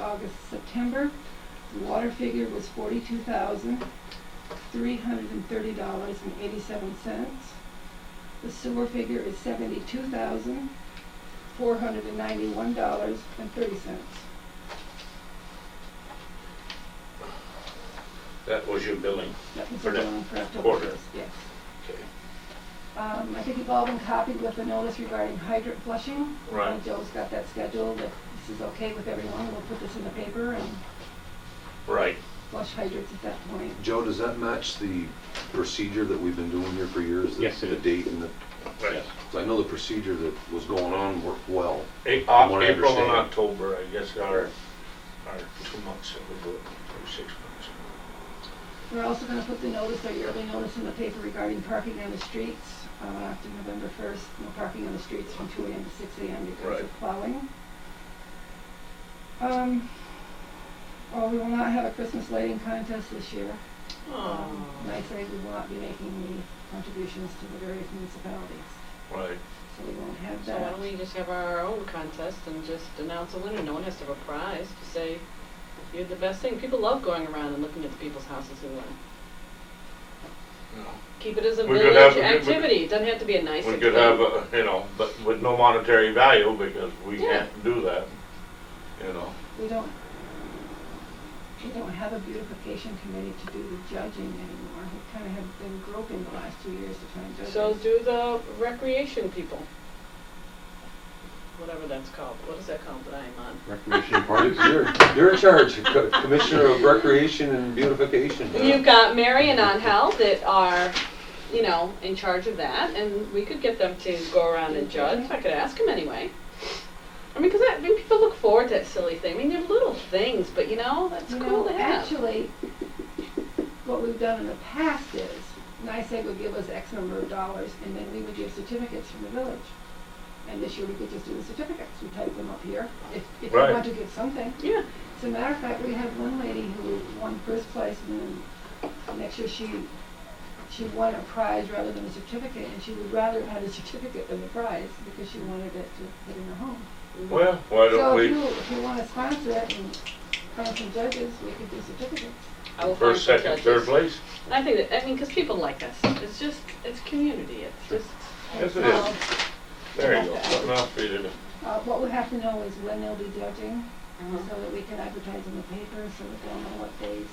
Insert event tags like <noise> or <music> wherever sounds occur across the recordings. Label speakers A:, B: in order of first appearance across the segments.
A: August, September. The water figure was forty-two thousand, three hundred and thirty dollars and eighty-seven cents. The sewer figure is seventy-two thousand, four hundred and ninety-one dollars and thirty cents.
B: That was your billing.
A: That was
B: For
A: the
B: the
A: one for October
B: quarter.
A: first, yes.
B: Okay.
A: Um, I think you've all been copied with the notice regarding hydrant flushing.
B: Right.
A: Uh, Joe's got that scheduled, if this is okay with everyone, we'll put this in the paper and
B: Right.
A: flush hydrants at that point.
C: Joe, does that match the procedure that we've been doing here for years? The-
D: Yes, it is.
C: The date and the,
B: Right.
C: 'cause I know the procedure that was going on worked well.
B: A-
C: From what I
B: April and
C: understand.
B: October, I guess, are, are two months that we do it, or six months.
A: We're also gonna put the notice, our yearly notice in the paper regarding parking on the streets, uh, after November first, no parking on the streets from two AM to six AM because of
B: Right.
A: plowing. Um, well, we will not have a Christmas lighting contest this year. Um, and I say we will not be making the contributions to the various municipalities,
B: Right.
A: so we won't have
E: So why
A: that.
E: don't we just have our own contest and just announce a winner? No one has to have a prize to say you're the best thing. People love going around and looking at the people's houses who win. Keep it as a
B: We could have-
E: village
B: we could-
E: activity. It doesn't have to be a nice.
B: We could have, a you know, but with no monetary value because we
E: Yeah.
B: can't do that, you know.
A: We don't, we don't have a beautification committee to do the judging anymore. We kinda have been groping the last two years to try and judge.
E: So
A: it.
E: do the recreation people. Whatever that's called. What is that called that I am on?
C: <laughs>
D: Recreation
C: You're,
D: parties.
C: you're- you're in charge, Co- Commissioner of Recreation and Beautification.
E: You've got Mary and Angel that are, you know, in charge of that, and we could get them to go around and judge. I could ask them anyway. I mean, because I mean, people look forward to that silly thing. I mean, they're little things, but you know, that's
A: You
E: cool
A: know,
E: to have.
A: actually, what we've done in the past is, NICEAG would give us X number of dollars, and then we would give certificates from the village. And this year, we could just do the certificates, we type them up here, if, if we
B: Right.
A: want to give something.
E: yeah,
A: As a matter of fact, we had one lady who won first place, and then next year she, she won a prize rather than a certificate, and she would rather have had a certificate than the prize, because she wanted it to put in her home.
B: Well, why don't
A: So if you,
B: we,
A: if you wanna sponsor it and find some judges, we could do certificates.
E: I will
B: first,
E: find some
B: second, third
E: judges.
B: place?
E: I think that I mean, because people like us. It's just, it's community. It's just.
B: Yes, it
A: Well,
B: is. There you go,
E: <laughs>
A: Okay.
B: something else for you to do. <laughs>
A: Uh, what we have to know is when they'll be judging,
E: uh,
A: so that we can advertise in the paper, so that they'll know what days.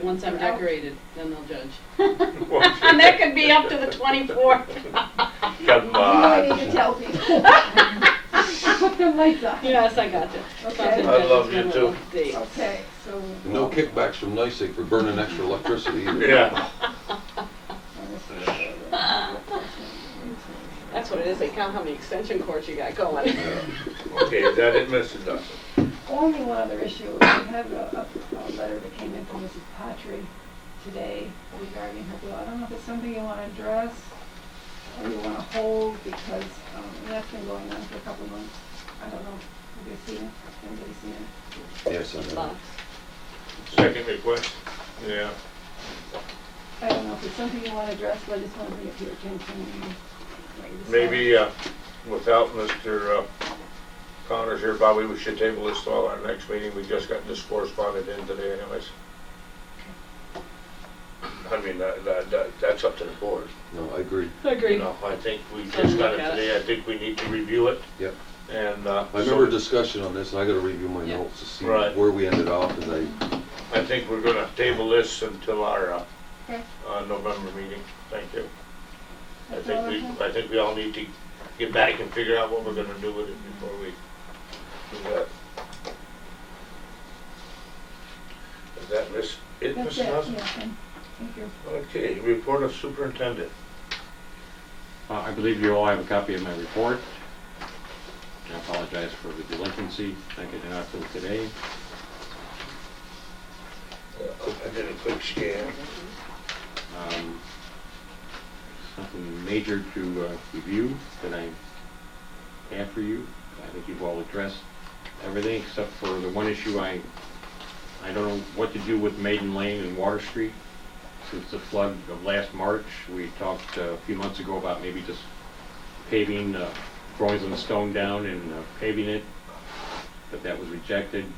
A: the-
E: Once I'm
A: they're out.
E: decorated, then they'll judge. and that could be up to the 24th.
B: Come
A: You don't
B: on.
A: need to tell people.
B: <laughs>
A: <laughs> Put their lights on.
E: <laughs> yes, I got you.
A: Okay.
B: I love you too.
A: Okay, so. <laughs>
C: No kickbacks from NICEAG for burning extra electricity either.
B: Yeah,
E: <laughs> That's what it is. They count how many extension cords you got going.
B: okay, is that it, Mr. Dawson?
A: Only one other issue, we have a, a, a letter that came in from Mrs. Patry today regarding her bill. I don't know if it's something you wanna address or you wanna hold because, um, and that's been going on for a couple of months. I don't know, have you seen it? Anybody seen it?
C: Yes, I know.
E: Box.
B: Second request? Yeah.
A: I don't know if it's something you wanna address, but I just wanna bring it to your attention. and let you decide.
B: Maybe, uh, without Mr. uh, Connors here, Bobby, we should table this till our next meeting. We just got this corresponded in today anyways. I mean, that, that, that- that's up to the board,
C: No, I agree.
E: I
B: you
E: agree.
B: know, I think we
E: Take a
B: just got
E: look
B: it
E: at it.
B: today. I think we need to review it.
C: Yep.
B: And, uh,
C: I remember a
B: so
C: discussion on this, and I gotta review my
E: Yeah.
C: notes to see
B: Right.
C: where we ended off, and I,
B: I think we're gonna table this until our, uh,
A: Okay.
B: uh, November meeting. Thank you. I
A: That's
B: think
A: all
B: we,
A: have.
B: I think we all need to get back and figure out what we're gonna do with it before we do that. Is that Miss, it,
A: That's
B: Miss
A: it, yeah,
B: Nelson?
A: thank thank you.
B: Okay, report of superintendent.
D: Uh, I believe you all have a copy of my report. I apologize for the delinquency. Thank you, not till today.
B: I did a quick scan.
D: Um, Something major to uh, review that I have for you. I think you've all addressed everything except for the one issue I, I don't know what to do with Maiden Lane and Water Street. Since the flood of last March, we talked uh, a few months ago about maybe just paving, uh, throwing some stone down and uh, paving it, but that was rejected.